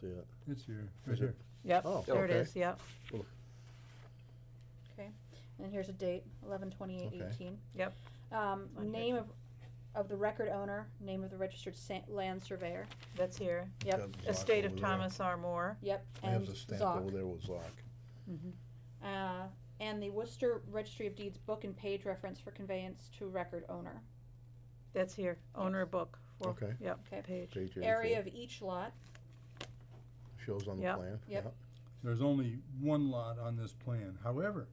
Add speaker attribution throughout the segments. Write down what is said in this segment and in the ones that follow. Speaker 1: see it.
Speaker 2: It's here,
Speaker 1: Is
Speaker 2: right here.
Speaker 3: Yep,
Speaker 1: Oh,
Speaker 3: there it
Speaker 1: okay.
Speaker 3: is, yep,
Speaker 4: Okay, and here's a date, eleven twenty-eight
Speaker 1: Okay.
Speaker 4: eighteen.
Speaker 3: Yep.
Speaker 4: Um,
Speaker 3: On here.
Speaker 4: name of, of the record owner, name of the registered sa- land surveyor,
Speaker 3: that's here.
Speaker 4: Yep.
Speaker 1: Got Zoc
Speaker 3: Estate of
Speaker 1: over there.
Speaker 3: Thomas R. Moore.
Speaker 4: yep,
Speaker 1: We have
Speaker 4: and
Speaker 1: the stamp over
Speaker 4: Zoc.
Speaker 1: there with Zoc.
Speaker 3: Mm-hmm.
Speaker 4: Uh, and the Worcester Registry of Deeds book and page reference for conveyance to record owner.
Speaker 3: That's here, owner book, four,
Speaker 1: Okay.
Speaker 3: yep,
Speaker 4: Okay.
Speaker 3: page.
Speaker 1: Page 84.
Speaker 4: Area of each lot,
Speaker 1: Shows on the
Speaker 3: Yep.
Speaker 1: plan.
Speaker 4: Yep.
Speaker 2: There's only one lot on this plan. However,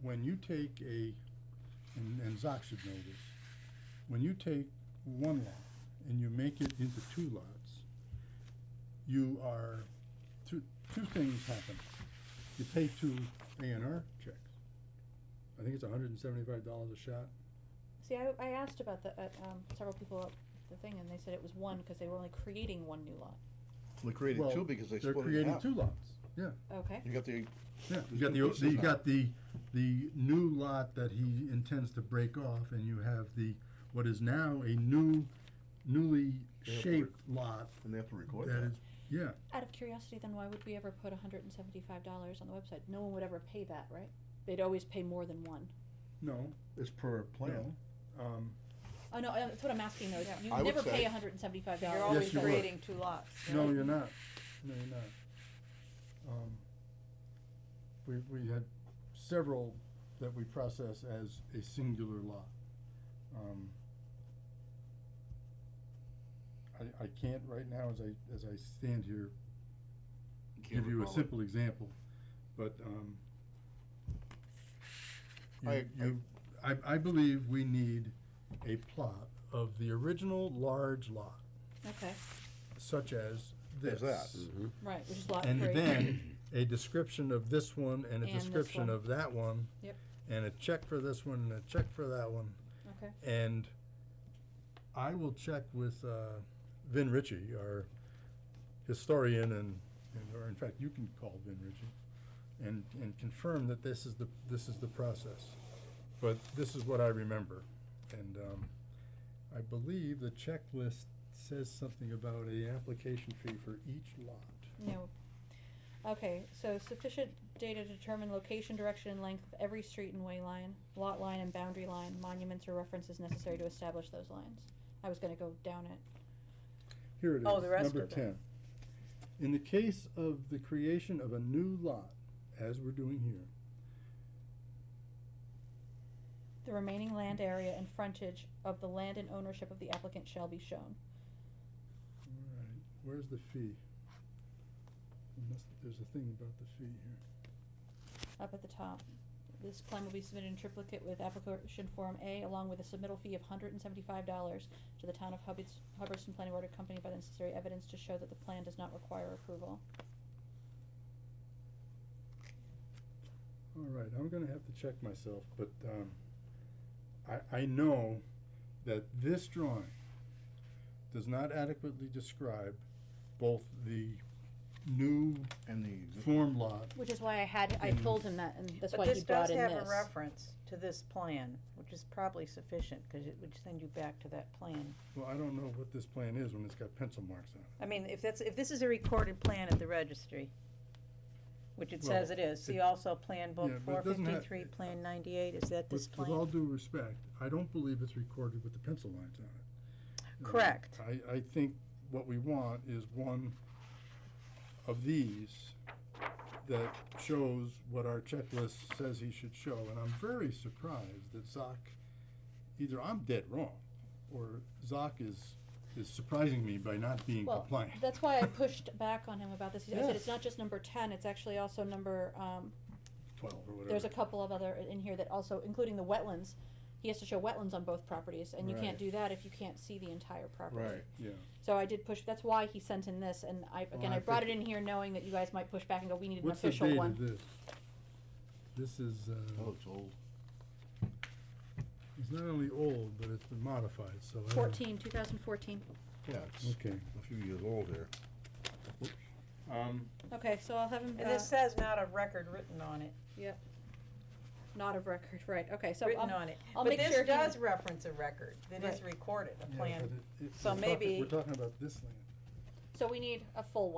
Speaker 2: when you take a, and, and Zoc should know this, when you take one lot and you make it into two lots, you are, two, two things happen. You pay two A and R checks. I think it's hundred and seventy-five dollars a shot.
Speaker 4: see, I, I asked about the, uh, um, several people at the thing, and they said it was one, cause they were only creating one new lot,
Speaker 1: They created
Speaker 2: Well,
Speaker 1: two because they
Speaker 2: They're
Speaker 1: split it
Speaker 2: creating
Speaker 1: up.
Speaker 2: two lots, yeah.
Speaker 4: okay?
Speaker 1: You got the,
Speaker 2: Yeah,
Speaker 1: There's
Speaker 2: you got
Speaker 1: two
Speaker 2: the, o-
Speaker 1: pieces
Speaker 2: the- you
Speaker 1: now.
Speaker 2: got the, the new lot that he intends to break off, and you have the, what is now a new, newly
Speaker 1: Yeah,
Speaker 2: shaped lot
Speaker 1: and they have to record
Speaker 2: that
Speaker 1: that.
Speaker 2: is, yeah,
Speaker 4: Out of curiosity, then why would we ever put hundred and seventy-five dollars on the website? No one would ever pay that, right? They'd always pay more than one.
Speaker 2: no,
Speaker 1: It's per plan.
Speaker 2: no. Um,
Speaker 4: Oh, no, uh, that's what I'm asking though, is you
Speaker 1: I would
Speaker 4: never pay
Speaker 1: say-
Speaker 4: hundred and seventy-five dollars.
Speaker 3: You're
Speaker 2: always
Speaker 3: always
Speaker 2: you would.
Speaker 3: creating two lots.
Speaker 2: no, you're not, no, you're not. Um, We, we had several that we process as a singular lot. Um, I, I can't right now, as I, as I stand here, give you a simple example, but, um, you-
Speaker 1: I- I-
Speaker 2: you- I, I believe we need a plot of the original large lot,
Speaker 4: Okay,
Speaker 2: such as
Speaker 1: There's
Speaker 2: this.
Speaker 1: that.
Speaker 4: right, which is lot three.
Speaker 2: And then a description of this one and a
Speaker 4: And this
Speaker 2: description
Speaker 4: one.
Speaker 2: of that one.
Speaker 4: Yep.
Speaker 2: And a check for this one and a check for that one.
Speaker 4: Okay.
Speaker 2: And I will check with uh, Vin Ritchie, our historian, and, and- or in fact, you can call Vin Ritchie, and, and confirm that this is the, this is the process. But this is what I remember. And um, I believe the checklist says something about a application fee for each lot.
Speaker 4: No. Okay, so sufficient data to determine location, direction, and length of every street and way line, lot line and boundary line, monuments or references necessary to establish those lines. I was gonna go down it.
Speaker 2: Here it is,
Speaker 3: Oh, the rest
Speaker 2: number
Speaker 3: of it.
Speaker 2: ten. In the case of the creation of a new lot, as we're doing here,
Speaker 4: The remaining land area and frontage of the land and ownership of the applicant shall be shown.
Speaker 2: Alright, where's the fee? There must- There's a thing about the fee here.
Speaker 4: Up at the top. This plan will be submitted in triplicate with application form A along with a submittal fee of hundred and seventy-five dollars to the town of Hubbards, Hubbardston Planning Board accompanied by the necessary evidence to show that the plan does not require approval.
Speaker 2: Alright, I'm gonna have to check myself, but, um, I, I know that this drawing does not adequately describe both the new
Speaker 1: And the,
Speaker 2: form lot.
Speaker 4: Which is why I had, I
Speaker 2: Mm.
Speaker 4: told him that, and that's
Speaker 3: But
Speaker 4: why he
Speaker 3: this does
Speaker 4: brought in
Speaker 3: have a
Speaker 4: this.
Speaker 3: reference to this plan, which is probably sufficient, because it would send you back to that plan.
Speaker 2: Well, I don't know what this plan is when it's got pencil marks on it.
Speaker 3: I mean, if that's, if this is a recorded plan at the registry, which it says
Speaker 2: Well,
Speaker 3: it is, see
Speaker 2: it-
Speaker 3: also Plan Book
Speaker 2: Yeah, but
Speaker 3: four
Speaker 2: it doesn't have-
Speaker 3: fifty-three, Plan ninety-eight, is that this
Speaker 2: With, with
Speaker 3: plan?
Speaker 2: all due respect, I don't believe it's recorded with the pencil lines on it. Uh,
Speaker 3: Correct.
Speaker 2: I, I think what we want is one of these that shows what our checklist says he should show, and I'm very surprised that Zoc, either I'm dead wrong, or Zoc is, is surprising me by not being
Speaker 4: Well,
Speaker 2: compliant.
Speaker 4: That's why I pushed back on him about this. I said,
Speaker 2: Yes.
Speaker 4: it's not just number ten, it's actually also number, um,
Speaker 2: Twelve or whatever.
Speaker 4: there's a couple of other uh, in here that also, including the wetlands. He has to show wetlands on both properties, and you
Speaker 1: Right.
Speaker 4: can't do that if you can't see the entire property.
Speaker 1: right,
Speaker 2: Yeah,
Speaker 4: So I did push, that's why he sent in this, and I,
Speaker 2: Well,
Speaker 4: again,
Speaker 2: I
Speaker 4: I brought it
Speaker 2: think-
Speaker 4: in here knowing that you guys might push back and go, we need an
Speaker 2: what's the
Speaker 4: official
Speaker 2: date of
Speaker 4: one.
Speaker 2: this? This is,
Speaker 1: that
Speaker 2: uh,
Speaker 1: looks Oh, old.
Speaker 2: it's not only old, but it's been modified, so. I don't-
Speaker 4: Fourteen, two thousand fourteen.
Speaker 1: Yeah, it's
Speaker 2: Okay.
Speaker 1: a few years old there.
Speaker 2: Um,
Speaker 4: Okay, so I'll have him,
Speaker 3: And
Speaker 4: uh,
Speaker 3: this says not a record written on it,
Speaker 4: not of record, right, okay, so um,
Speaker 3: written
Speaker 4: I'll,
Speaker 3: on it.
Speaker 4: I'll
Speaker 3: But
Speaker 4: make sure
Speaker 3: this
Speaker 4: he-
Speaker 3: does reference a record that is recorded, a
Speaker 2: yeah,
Speaker 3: plan.
Speaker 2: but it- it-
Speaker 3: So
Speaker 2: we're talking-
Speaker 3: maybe-
Speaker 2: We're talking about this land.
Speaker 4: So we need a full